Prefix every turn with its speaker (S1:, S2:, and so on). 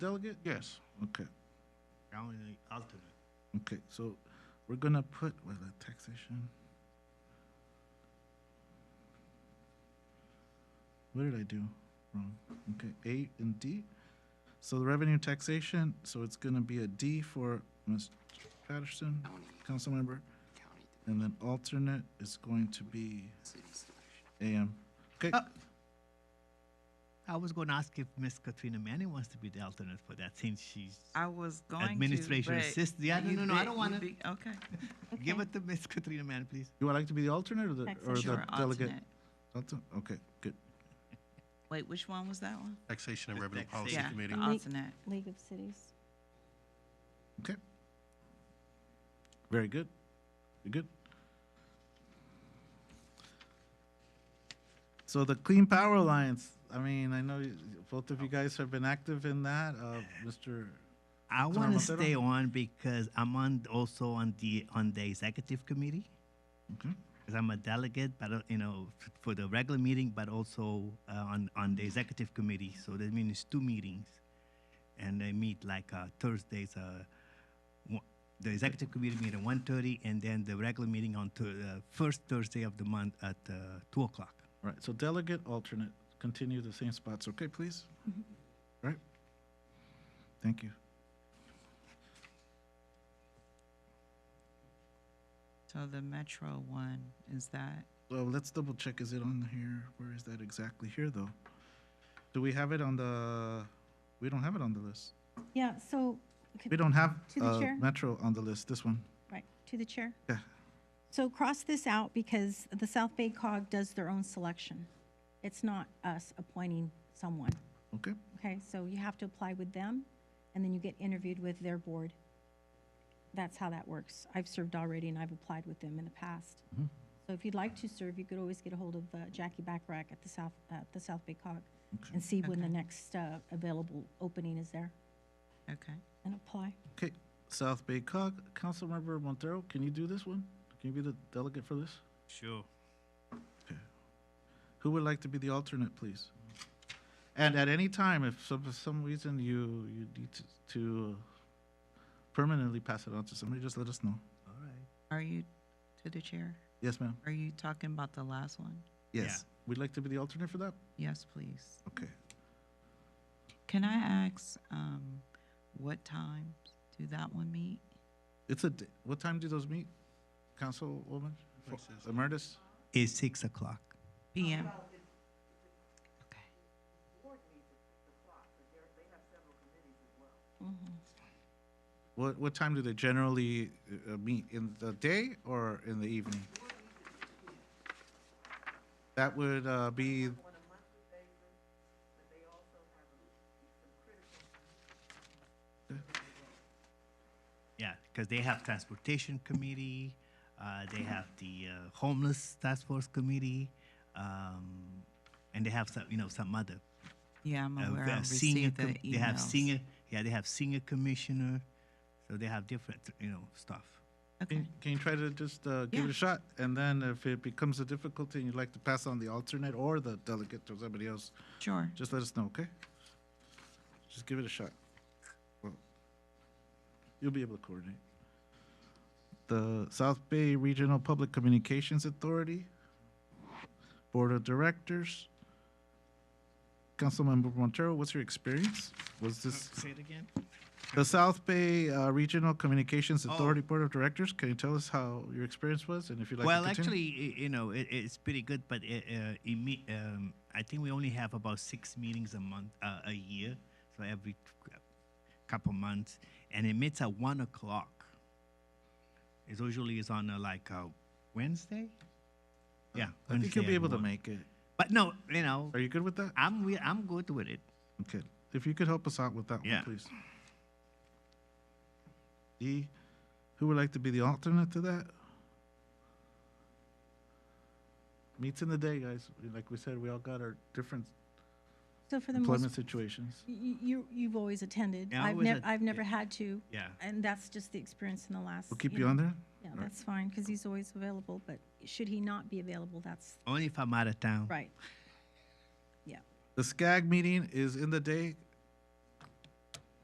S1: delegate?
S2: Yes.
S1: Okay,
S3: I only need alternate.
S1: okay, so we're gonna put, with a taxation? What did I do wrong? Okay, A and D. So the revenue taxation, so it's gonna be a D for Mr. Patterson, council member,
S4: county to
S1: and then alternate is going to be
S4: city selection.
S1: AM. Okay,
S3: Uh, I was going to ask if Miss Katrina Manning wants to be the alternate for that since she's
S5: I was going to.
S3: administration
S5: but
S3: assist. Yeah, no,
S5: you
S3: no, no, I
S5: bit-
S3: don't
S5: you
S3: want to.
S5: bit- Okay.
S3: Give it to Miss Katrina Manning, please.
S1: you would like to be the alternate or the, or
S5: Taxation
S1: the
S5: or
S1: delegate?
S5: alternate.
S1: Alternate, okay, good.
S5: Wait, which one was that one?
S2: Taxation and
S3: The
S2: Revenue Policy
S3: taxation.
S5: Yeah, the
S2: Committee.
S5: alternate.
S6: League of Cities.
S1: Okay. Very good. Very good. So the Clean Power Alliance, I mean, I know you- both of you guys have been active in that, uh, Mr.
S3: I
S1: Councilor
S3: want to
S1: Montero?
S3: stay on because I'm on also on the on the executive committee.
S1: Okay.
S3: Because I'm a delegate, but uh, you know, f- for the regular meeting, but also uh, on on the executive committee. So that means it's two meetings, and they meet like uh, Thursdays. Uh, one- the executive committee meet at 1.30 and then the regular meeting on the uh, first Thursday of the month at uh, two o'clock.
S1: Right, so delegate, alternate, continue the same spots, okay, please? Right? Thank you.
S5: So the Metro one, is that,
S1: Well, let's double check, is it on here? Where is that exactly here, though? Do we have it on the, we don't have it on the list.
S7: Yeah, so, okay,
S1: We don't have
S7: To the
S1: uh,
S7: chair?
S1: Metro on the list, this one.
S7: right, to the chair.
S1: Yeah.
S7: So cross this out because the South Bay cog does their own selection. It's not us appointing someone,
S1: Okay,
S7: okay? So you have to apply with them, and then you get interviewed with their board. That's how that works. I've served already, and I've applied with them in the past. So if you'd like to serve, you could always get a hold of uh, Jackie Backrack at the South, at the South Bay cog and see when the next uh, available opening is there
S5: okay.
S7: and apply.
S1: okay. South Bay Cog, Councilmember Montero, can you do this one? Can you be the delegate for this?
S3: Sure.
S1: Who would like to be the alternate, please? And at any time, if some, for some reason you, you need to, to uh, permanently pass it on to somebody, just let us know.
S3: All right.
S5: Are you, to the chair,
S1: Yes, ma'am?
S5: are you talking about the last one?
S1: Yes. Would like to be the alternate for that?
S5: Yes, please.
S1: Okay.
S5: Can I ask, um, what times do that one meet?
S1: It's a, d- what time do those meet, Councilwoman? For- Emeritus?
S3: It's six o'clock.
S5: PM? Okay.
S1: What, what time do they generally uh, uh, meet? In the day or in the evening? That would uh, be.
S3: Yeah, because they have transportation committee, uh,
S5: Mm-hmm.
S3: they have the uh, homeless task force committee, um, and they have some, you know, some other.
S5: Yeah, I'm
S3: uh,
S5: aware.
S3: uh,
S5: I
S3: senior
S5: received the
S3: com-
S5: emails.
S3: They have senior, yeah, they have senior commissioner, so they have different, you know, stuff.
S5: Okay,
S1: Can can you try to just uh, give it
S5: Yeah.
S1: a shot? And then if it becomes a difficulty and you'd like to pass on the alternate or the delegate to somebody else,
S5: sure.
S1: just let us know, okay? Just give it a shot. Well, You'll be able to coordinate. The South Bay Regional Public Communications Authority, Board of Directors. Councilmember Montero, what's your experience? Was this
S3: it again?
S1: the South Bay uh, Regional Communications
S3: Oh.
S1: Authority Board of Directors? Can you tell us how your experience was and if you'd like
S3: well,
S1: to continue?
S3: actually, i- you know, it, it's pretty good, but it, uh, it me- um, I think we only have about six meetings a month, uh, a year, so every t- couple months, and it meets at one o'clock. It's usually is on a, like a Wednesday. Yeah,
S1: Uh, I think you'll
S3: Wednesday
S1: be
S3: at
S1: able to
S3: one.
S1: make it.
S3: But no, you know,
S1: Are you good with that?
S3: I'm re- I'm good with it.
S1: Okay, if you could help us out with that one,
S3: Yeah.
S1: please. E, who would like to be the alternate to that? Meets in the day, guys. Like we said, we all got our different
S7: So for the most
S1: employment situations.
S7: You, you, you've always attended.
S3: Yeah, I
S7: I've
S3: was
S7: never,
S3: at-
S7: I've never had to.
S3: Yeah.
S7: And that's just the experience in the last.
S1: We'll keep you on
S7: know.
S1: there?
S7: Yeah,
S1: All right.
S7: that's fine, because he's always available, but should he not be available, that's
S3: Only if I'm out of town.
S7: right.
S1: The SCAG meeting is in the day,